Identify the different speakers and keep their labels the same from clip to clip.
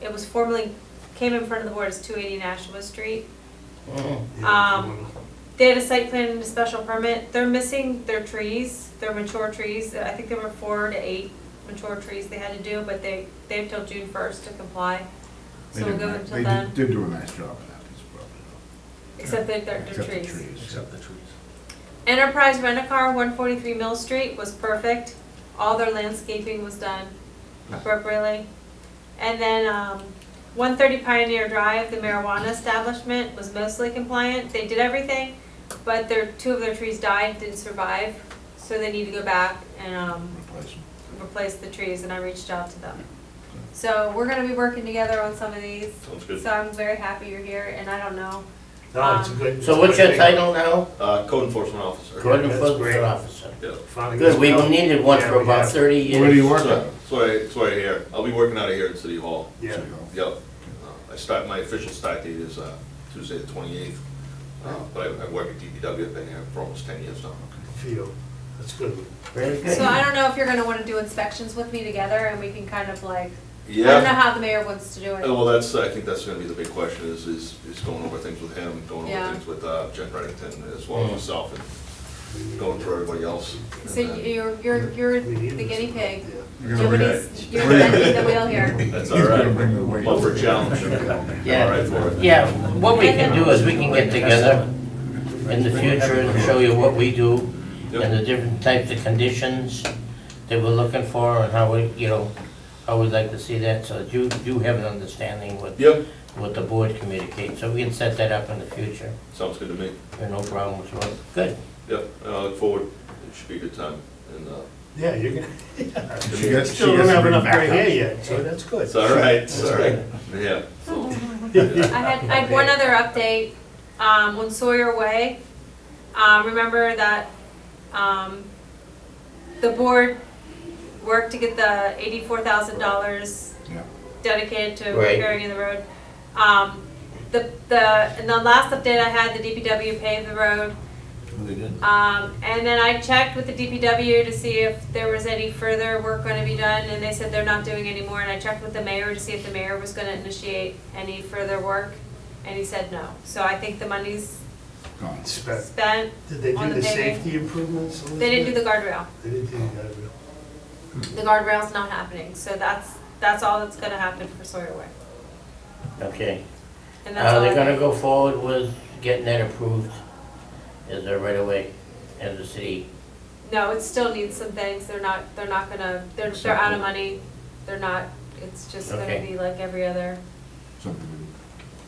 Speaker 1: it was formerly, came in front of the board as two eighty Nashua Street.
Speaker 2: Yeah,
Speaker 1: Um,
Speaker 2: if you wanna-
Speaker 1: They had a site plan and a special permit, they're missing their trees, their mature trees, I think there were four to eight mature trees they had to do, but they, they have till June first to comply.
Speaker 3: They
Speaker 1: So we'll
Speaker 3: did
Speaker 1: go
Speaker 3: ni-
Speaker 1: until then,
Speaker 3: They did- did do a nice job of that, it's probably,
Speaker 1: except that they're,
Speaker 3: except
Speaker 1: they're
Speaker 3: the
Speaker 1: trees.
Speaker 3: trees.
Speaker 4: Except the trees.
Speaker 1: Enterprise Rent-A-Car, one forty-three Mill Street was perfect, all their landscaping was done appropriately. And then, um, one thirty Pioneer Drive, the marijuana establishment was mostly compliant, they did everything, but their, two of their trees died, didn't survive, so they need to go back and, um,
Speaker 3: Replace them.
Speaker 1: replace the trees, and I reached out to them. So we're gonna be working together on some of these,
Speaker 5: Sounds good.
Speaker 1: so I'm very happy you're here, and I don't know,
Speaker 2: No, it's a good. it's
Speaker 6: So
Speaker 2: a
Speaker 6: what's
Speaker 2: good
Speaker 6: your
Speaker 2: thing.
Speaker 6: title now?
Speaker 5: Uh, code enforcement officer.
Speaker 6: Code
Speaker 2: that's great.
Speaker 6: enforcement officer.
Speaker 5: Yeah.
Speaker 2: Finally
Speaker 6: Good, we
Speaker 2: got-
Speaker 6: needed one
Speaker 2: Yeah,
Speaker 6: for
Speaker 2: we
Speaker 6: about
Speaker 2: have.
Speaker 6: thirty years.
Speaker 3: Where do you work at?
Speaker 5: So, so I, so I hear, I'll be working out of here at City Hall.
Speaker 2: Yeah.
Speaker 5: Yep. Uh, I start, my official start date is, uh, Tuesday the twenty-eighth. Uh, but I, I work at DPW, I've been here for almost ten years now.
Speaker 2: Feel, that's good.
Speaker 6: Very good.
Speaker 1: so I don't know if you're gonna wanna do inspections with me together, and we can kind of like I don't know
Speaker 5: Yeah,
Speaker 1: how the mayor wants to do
Speaker 5: Uh,
Speaker 1: it.
Speaker 5: well, that's, I think that's gonna be the big question is, is, is going over things with him, going
Speaker 1: Yeah.
Speaker 5: over things with, uh, Jen Reddington as well as
Speaker 6: Mm.
Speaker 5: myself and going through everybody else. And
Speaker 1: So
Speaker 5: then-
Speaker 1: you're, you're, you're the guinea pig.
Speaker 3: You're gonna bring it.
Speaker 1: Nobody's, you're bending the wheel here.
Speaker 5: That's
Speaker 3: He's
Speaker 5: all
Speaker 3: gonna
Speaker 5: right.
Speaker 3: bring the weight.
Speaker 5: Love for challenge. I'm
Speaker 6: Yeah.
Speaker 5: all right for it.
Speaker 6: Yeah, what we can do is we can get together in the future and show you what we do and the different types of conditions that we're looking for and how we, you know, how we'd like to see that, so that you, you have an understanding what,
Speaker 5: Yep,
Speaker 6: what the board communicates, so we can set that up in the future,
Speaker 5: sounds good to me.
Speaker 6: There are no problems with it. Good,
Speaker 5: Yep, and I look forward, it should be a good time. And, uh,
Speaker 2: Yeah, you're gonna,
Speaker 3: She gets, she
Speaker 2: still don't have
Speaker 3: gets to bring
Speaker 2: enough
Speaker 3: back
Speaker 2: gray hair
Speaker 3: up.
Speaker 2: yet, so that's good.
Speaker 5: it's all right, it's all right. Yeah. so, yeah.
Speaker 1: I had, I had one other update, um, on Sawyer Way. Um, remember that, um, the board worked to get the eighty-four thousand dollars
Speaker 3: Yeah.
Speaker 1: dedicated to
Speaker 6: Right.
Speaker 1: repairing the road. Um, the, the, in the last update I had, the DPW paved the road.
Speaker 3: Oh, They did.
Speaker 1: Um, and then I checked with the DPW to see if there was any further work gonna be done, and they said they're not doing any more, and I checked with the mayor to see if the mayor was gonna initiate any further work, and he said no. So I think the money's
Speaker 3: Gone.
Speaker 2: Spec-
Speaker 1: spent,
Speaker 2: Did they
Speaker 1: On
Speaker 2: do
Speaker 1: the
Speaker 2: the
Speaker 1: paving.
Speaker 2: safety improvements? Elizabeth?
Speaker 1: they didn't do the guardrail,
Speaker 2: They didn't do that, really.
Speaker 1: the guardrail's not happening, so that's, that's all that's gonna happen for Sawyer Way.
Speaker 6: okay.
Speaker 1: And that's
Speaker 6: Now,
Speaker 1: all.
Speaker 6: they're
Speaker 1: I-
Speaker 6: gonna go forward with getting that approved as a right away, as a city.
Speaker 1: No, it still needs some things, they're not, they're not gonna, they're, they're out of money, they're not, it's just gonna
Speaker 6: Okay.
Speaker 1: be like every other.
Speaker 3: Something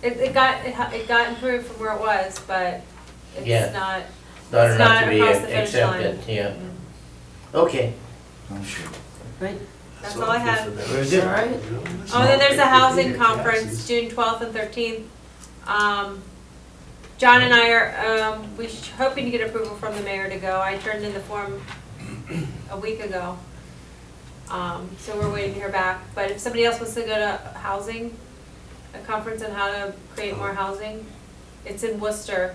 Speaker 3: we
Speaker 1: It, it got, it ha- it got improved from where it was, but
Speaker 6: Yeah.
Speaker 1: it's not,
Speaker 6: Not
Speaker 1: It's
Speaker 6: enough
Speaker 1: not
Speaker 6: to be
Speaker 1: across the finish
Speaker 6: accepted, yeah. Okay.
Speaker 3: Sounds good.
Speaker 1: that's
Speaker 2: So
Speaker 1: all I
Speaker 2: feel
Speaker 1: have.
Speaker 2: for them.
Speaker 6: Very
Speaker 2: You
Speaker 6: good.
Speaker 2: know, that's
Speaker 1: Oh, then there's a
Speaker 2: not-
Speaker 1: housing
Speaker 2: Yeah,
Speaker 1: conference,
Speaker 2: taxes.
Speaker 1: June twelfth and thirteenth. Um, John and I are, um, we sh- hoping to get approval from the mayor to go. I turned in the form a week ago. Um, so we're waiting to hear back, but if somebody else wants to go to housing, a conference on how to create more housing, it's in Worcester,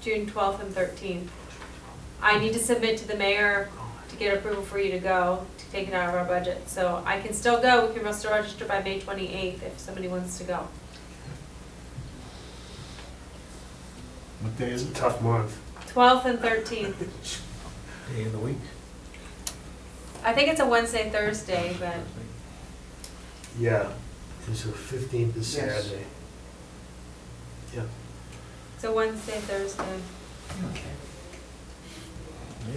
Speaker 1: June twelfth and thirteenth. I need to submit to the mayor to get approval for you to go, to take it out of our budget. So I can still go, we can still register by May twenty-eighth if somebody wants to go.
Speaker 3: What day is
Speaker 2: It's
Speaker 3: it?
Speaker 2: a tough month.
Speaker 1: Twelfth and thirteenth,
Speaker 4: Day in the week.
Speaker 1: I think it's a Wednesday, Thursday, but
Speaker 2: Yeah, it's the fifteenth is
Speaker 4: Yes.
Speaker 2: Saturday.
Speaker 1: it's a Wednesday, Thursday.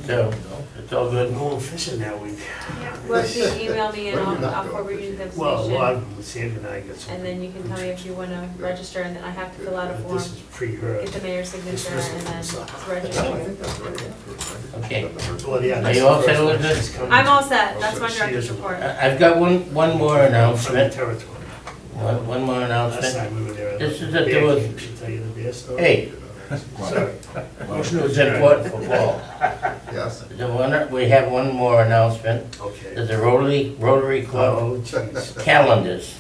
Speaker 6: So, it's all
Speaker 2: But
Speaker 6: good.
Speaker 2: no one fishing that week.
Speaker 1: Well, if you email me and
Speaker 3: Where you
Speaker 1: I'll,
Speaker 3: not
Speaker 1: I'll
Speaker 3: going,
Speaker 1: forward you
Speaker 3: Richard?
Speaker 1: the
Speaker 2: Well, well,
Speaker 1: information.
Speaker 2: I'm- Sam and I got some.
Speaker 1: And then you can tell me if you wanna register and then I have to fill out a
Speaker 2: But
Speaker 1: form,
Speaker 2: This is pre-heard.
Speaker 1: get the mayor's signature
Speaker 2: Dismissal.
Speaker 1: and then it's
Speaker 3: Oh, I
Speaker 1: registered.
Speaker 3: think that's right after, right?
Speaker 6: Okay.
Speaker 2: Well, yeah,
Speaker 6: Are
Speaker 2: that's
Speaker 6: you
Speaker 2: the
Speaker 6: all
Speaker 2: first
Speaker 6: set
Speaker 2: one.
Speaker 6: with this?
Speaker 2: She's coming
Speaker 1: I'm all set, that's my
Speaker 2: She
Speaker 1: director's
Speaker 2: is-
Speaker 1: report.
Speaker 6: I- I've got one, one more
Speaker 2: From the
Speaker 6: announcement,
Speaker 2: territory.
Speaker 6: one one more
Speaker 2: Last
Speaker 6: announcement.
Speaker 2: time we were there.
Speaker 6: This is
Speaker 2: the
Speaker 6: a
Speaker 2: bear
Speaker 6: do with-
Speaker 2: came. She'll tell you the bear story.
Speaker 6: Hey,
Speaker 2: Sorry. Motion to
Speaker 6: it's
Speaker 2: adjourn.
Speaker 6: important for Paul.
Speaker 3: Yes.
Speaker 6: The one, we have one more announcement,
Speaker 2: Okay.
Speaker 6: there's a Rotary, Rotary Club
Speaker 2: Oh, jeez.
Speaker 6: calendars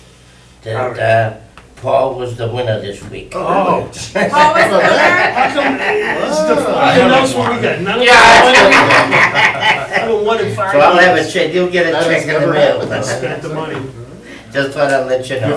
Speaker 6: that uh, Paul was the winner this week.
Speaker 2: Oh.
Speaker 1: Paul was there,
Speaker 2: This is the final announcement we got. None of them won in
Speaker 6: So
Speaker 2: five
Speaker 6: I'll have a
Speaker 2: years.
Speaker 6: check, you'll get a
Speaker 3: That has
Speaker 6: check in the
Speaker 3: never
Speaker 6: mail.
Speaker 2: Spent the money.
Speaker 6: Just thought I'd let you know.